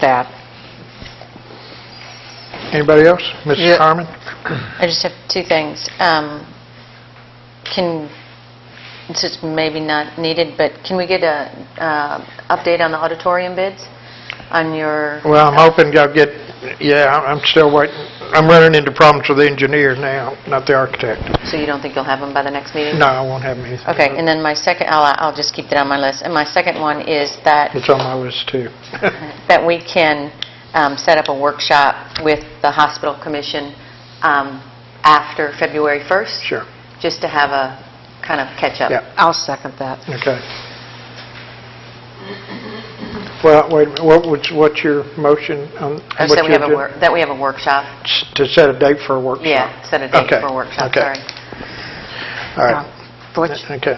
that. Anybody else? Yeah. Mrs. Harmon? I just have two things. Um, Can, this is maybe not needed, but can we get a uh, update on the auditorium bids? On your, Well, I'm hoping I'll get, yeah, I'm- I'm still waiting. I'm running into problems with the engineer now, not the architect. so you don't think you'll have them by the next meeting? No, I won't have anything. Okay, and then my second, I'll I'll just keep that on my list. And my second one is that It's on my list, too. that we can um, set up a workshop with the hospital commission um, after February 1st? Sure. Just to have a kind of catch-up. Yeah. I'll second that. Okay. Well, wait, a minute. what was, what's your motion? on- I what's said we your have a, gen- wor- that we have a workshop. s- To set a date for a workshop? Yeah, set a date Okay, for a workshop, okay. sorry. All right. Butch, Okay.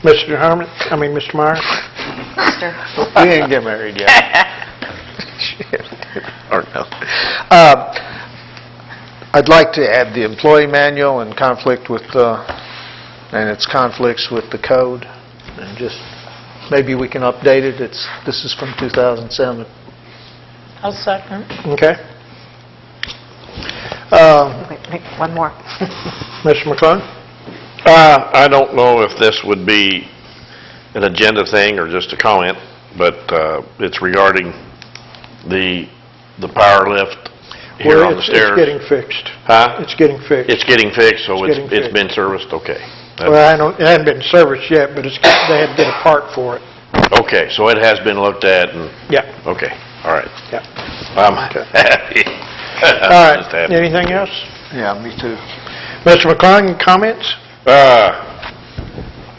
Mr. Harmon, I mean, Mr. Meyer? Mr. We didn't get married yet. Or no. Uh, I'd like to add the employee manual and conflict with, uh, and its conflicts with the code, and just, maybe we can update it. It's, this is from 2007. I'll second. Okay. Um, Uh, wait, wait, one more. Mr. McClung? Uh, I don't know if this would be an agenda thing or just a comment, but uh, it's regarding the, the power lift here Well, on the it's- It's stairs. getting fixed. Huh? It's getting fixed. It's getting fixed, so it's it's, getting it's been serviced, okay. That- Well, I don't, it hasn't been serviced yet, but it's, got- they had to get a part for it. Okay, so it has been looked at and, Yeah, okay, all right. yeah. I'm happy. All right, anything else? Yeah, me too. Mr. McClung, comments? Uh,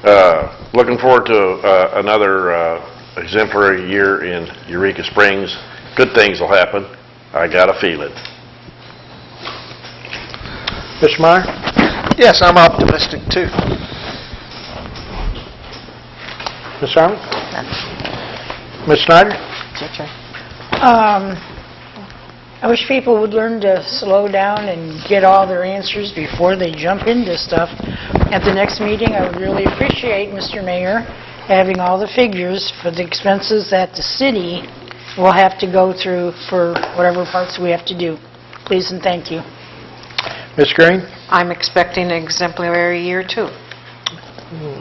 uh, Looking forward to uh, another uh, exemplary year in Eureka Springs. Good things will happen. I got a feeling. Mr. Meyer? Yes, I'm optimistic too. Ms. Harmon? Ms. Snyder? Ginger. Um, I wish people would learn to slow down and get all their answers before they jump into stuff. At the next meeting, I would really appreciate, Mr. Mayor, having all the figures for the expenses that the city will have to go through for whatever parts we have to do. Please and thank you. Ms. Green? I'm expecting an exemplary year, too.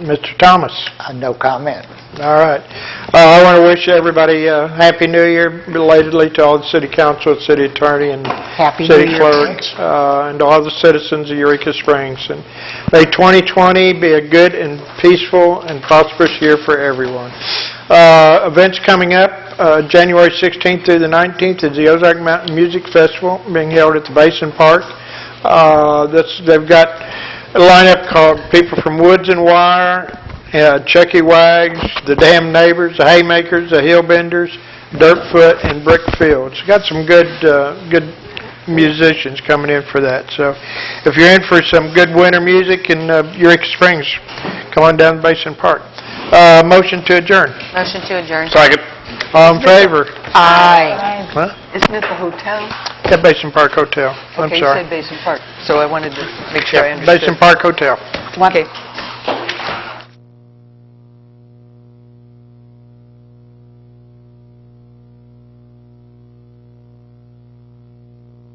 Mr. Thomas? Uh, No comment. All right. Uh, I want to wish everybody a Happy New Year belatedly to all the city council, city attorney, and Happy New city Year. clerk, uh, and all the citizens of Eureka Springs. And May 2020 be a good and peaceful and prosperous year for everyone. Uh, Events coming up, uh, January 16th through the 19th is the Ozark Mountain Music Festival being held at the Basin Park. Uh, This, they've got a lineup called People from Woods and Wire, uh, Chucky Wags, The Damn Neighbors, The Haymakers, The Hillbenders, Dirtfoot, and Brick Fields. Got some good, uh, good musicians coming in for that. So if you're in for some good winter music in uh, Eureka Springs, come on down to Basin Park. Uh, Motion to adjourn. Motion to adjourn. Second. All in favor? Aye. Huh? Isn't it the hotel? At Basin Park Hotel. I'm Okay, you sorry. said Basin Park, so I wanted to make sure I understood. Basin Park Hotel. One- Okay.